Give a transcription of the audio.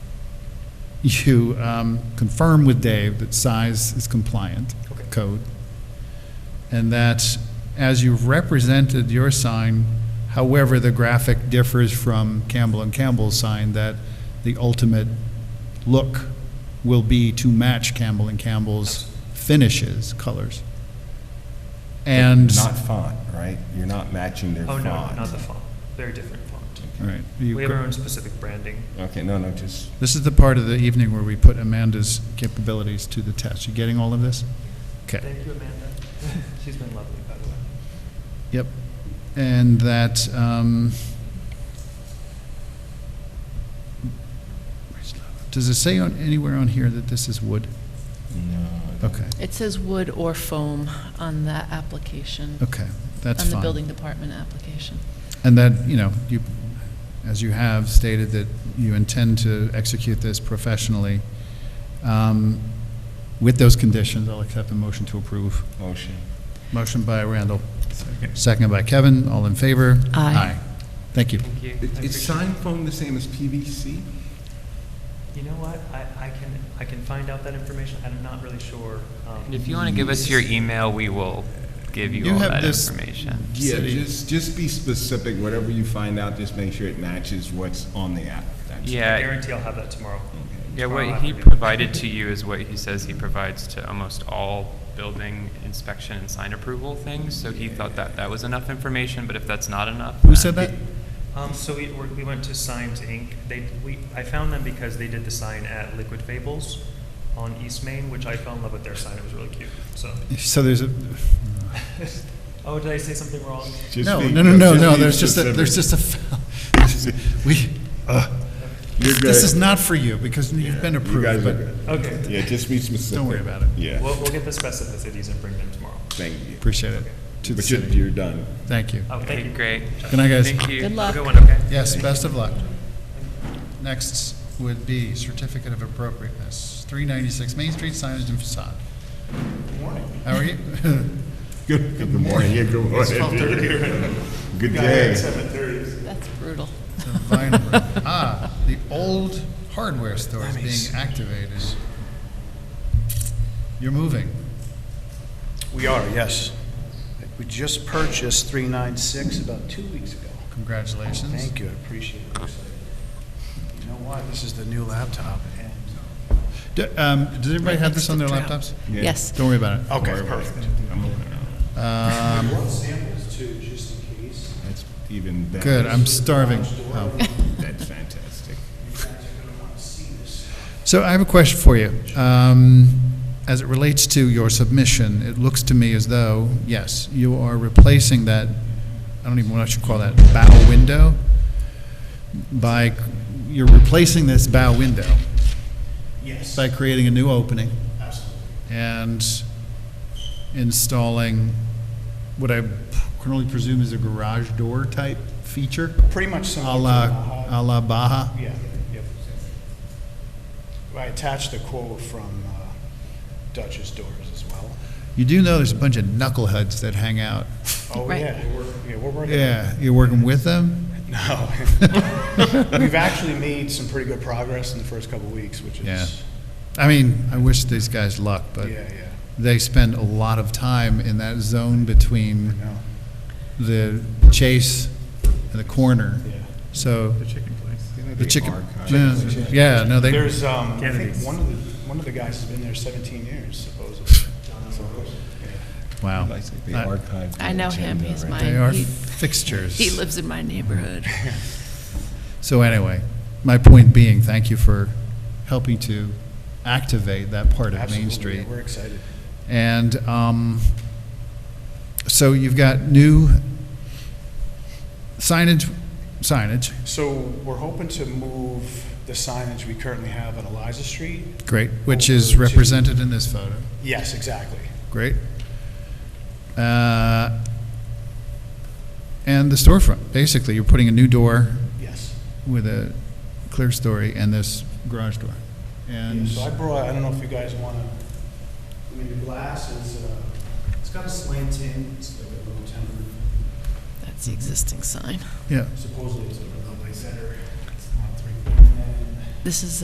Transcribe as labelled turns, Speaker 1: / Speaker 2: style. Speaker 1: you um, confirm with Dave that size is compliant
Speaker 2: Okay.
Speaker 1: code, and that as you've represented your sign, however the graphic differs from Campbell and Campbell's sign, that the ultimate look will be to match Campbell and Campbell's finishes, colors. And,
Speaker 3: Not font, right? You're not matching their
Speaker 2: Oh,
Speaker 3: font.
Speaker 2: no, not the font. Very different font.
Speaker 1: all right. you
Speaker 2: We have
Speaker 1: go-
Speaker 2: our own specific branding.
Speaker 3: Okay, no, no, just,
Speaker 1: This is the part of the evening where we put Amanda's capabilities to the test. You getting all of this? Okay.
Speaker 2: Thank you, Amanda. She's been lovely, by the way.
Speaker 1: Yep. And that, um, where's Lava? does it say on, anywhere on here that this is wood?
Speaker 3: no.
Speaker 1: Okay,
Speaker 4: It says wood or foam on that application,
Speaker 1: okay, that's
Speaker 4: on
Speaker 1: fine.
Speaker 4: the building department application.
Speaker 1: And that, you know, you, as you have stated that you intend to execute this professionally, um, with those conditions, I'll accept the motion to approve.
Speaker 3: Motion.
Speaker 1: Motion by Randall, second by Kevin, all in favor?
Speaker 4: Aye.
Speaker 1: Thank you.
Speaker 2: Thank you. I appreciate
Speaker 3: Is sign foam the same as PVC?
Speaker 2: it. You know what? I, I can, I can find out that information. I'm not really sure. um,
Speaker 5: And if you want to give us your email, we will give you,
Speaker 1: You
Speaker 5: all
Speaker 1: have
Speaker 5: that
Speaker 1: this-
Speaker 5: information.
Speaker 3: Yeah,
Speaker 1: City.
Speaker 3: just, just be specific, whatever you find out, just make sure it matches what's on the app. That's-
Speaker 2: I
Speaker 5: Yeah,
Speaker 2: guarantee I'll have that tomorrow.
Speaker 5: yeah.
Speaker 2: Tomorrow
Speaker 5: What he
Speaker 2: afternoon.
Speaker 5: provided to you is what he says he provides to almost all building inspection and sign approval things. So he thought that that was enough information, but if that's not enough,
Speaker 1: Who
Speaker 5: then-
Speaker 1: said that?
Speaker 2: Um, so we, we're- we went to Signs Inc. They, we, I found them because they did the sign at Liquid Fables on East Main, which I fell in love with their sign. It was really cute, so.
Speaker 1: So there's a,
Speaker 2: Oh, did I say something wrong?
Speaker 3: Just
Speaker 1: no,
Speaker 3: be-
Speaker 1: no, no, no,
Speaker 3: be
Speaker 1: no, there's just a, there's
Speaker 3: specific.
Speaker 1: just a, foul. we,
Speaker 3: You're
Speaker 1: this
Speaker 3: good.
Speaker 1: is not for you, because you've been
Speaker 3: You guys
Speaker 1: approved,
Speaker 3: are
Speaker 1: but
Speaker 3: good.
Speaker 2: Okay.
Speaker 3: Yeah, just be specific.
Speaker 1: don't worry about it.
Speaker 2: We'll,
Speaker 3: Yeah,
Speaker 2: we'll get the specificities and bring them tomorrow.
Speaker 3: thank you.
Speaker 1: Appreciate it. To the
Speaker 3: But you're,
Speaker 1: city.
Speaker 3: you're done.
Speaker 1: Thank you.
Speaker 2: Oh, thank
Speaker 5: Okay,
Speaker 2: you.
Speaker 5: great.
Speaker 1: Good night, guys.
Speaker 5: Thank you.
Speaker 4: Good luck.
Speaker 2: Good one, okay?
Speaker 1: Yes, best of luck. Next would be certificate of appropriateness, 396 Main Street, signage and facade. How are you?
Speaker 3: Good, good morning, yeah, good morning. Good day.
Speaker 4: That's brutal.
Speaker 1: The Vine Room. Ah, the old hardware store is being activated. You're moving.
Speaker 6: We are, yes. We just purchased 396 about two weeks ago.
Speaker 1: Congratulations.
Speaker 6: Thank you, I appreciate it. You know what, this is the new laptop, and...
Speaker 1: Do- um, Does everybody have this on their laptops?
Speaker 3: Yeah.
Speaker 4: Yes.
Speaker 1: Don't worry about it.
Speaker 6: Okay, perfect.
Speaker 1: Um,
Speaker 6: One samples too, just in case.
Speaker 3: That's even better.
Speaker 1: Good, I'm starving. Oh.
Speaker 3: That's fantastic.
Speaker 1: So I have a question for you. Um, As it relates to your submission, it looks to me as though, yes, you are replacing that, I don't even know what I should call that, bow window by, you're replacing this bow window
Speaker 6: Yes,
Speaker 1: by creating a new opening
Speaker 6: absolutely.
Speaker 1: and installing what I can only presume is a garage door type feature,
Speaker 6: Pretty much something...
Speaker 1: a la, a la Baja.
Speaker 6: Yeah, yep. I attached a quote from uh, Dutch's Doors as well.
Speaker 1: You do know there's a bunch of knuckleheads that hang out.
Speaker 6: Oh,
Speaker 4: Right.
Speaker 6: yeah, we're- yeah, we're working...
Speaker 1: Yeah, you're working with them?
Speaker 6: No. We've actually made some pretty good progress in the first couple of weeks, which
Speaker 1: Yeah.
Speaker 6: is,
Speaker 1: I mean, I wish these guys luck,
Speaker 6: yeah,
Speaker 1: but
Speaker 6: yeah,
Speaker 1: they spend a lot of time in that zone between
Speaker 6: no,
Speaker 1: the chase and the corner.
Speaker 6: yeah.
Speaker 1: So the chicken.
Speaker 3: Archive.
Speaker 1: Yeah, yeah, no, they,
Speaker 6: There's, um, I think
Speaker 2: Kennedy's.
Speaker 6: one of the, one of the guys has been there 17 years supposedly.
Speaker 1: wow.
Speaker 3: They
Speaker 1: Uh,
Speaker 3: archive the
Speaker 4: I know him,
Speaker 3: agenda,
Speaker 4: he's
Speaker 3: right?
Speaker 4: mine.
Speaker 1: They are
Speaker 4: He-
Speaker 1: fixtures.
Speaker 4: He lives in my neighborhood.
Speaker 1: So anyway, my point being, thank you for helping to activate that part of
Speaker 6: Absolutely,
Speaker 1: Main
Speaker 6: yeah,
Speaker 1: Street.
Speaker 6: We're excited.
Speaker 1: And um, so you've got new signage, signage,
Speaker 6: So we're hoping to move the signage we currently have on Eliza Street.
Speaker 1: great, which is
Speaker 6: Over to-
Speaker 1: represented in this photo,
Speaker 6: Yes, exactly.
Speaker 1: great. Uh, And the storefront, basically, you're putting a new door
Speaker 6: Yes.
Speaker 1: with a clear story and this garage door.
Speaker 6: Yeah,
Speaker 1: And,
Speaker 6: So I brought, I don't know if you guys want to, I mean, the glass is, uh, it's got a slanting, it's like a little tempered
Speaker 4: That's the existing sign.
Speaker 1: yeah.
Speaker 6: supposedly it's like a little center. It's not three. And then
Speaker 4: This is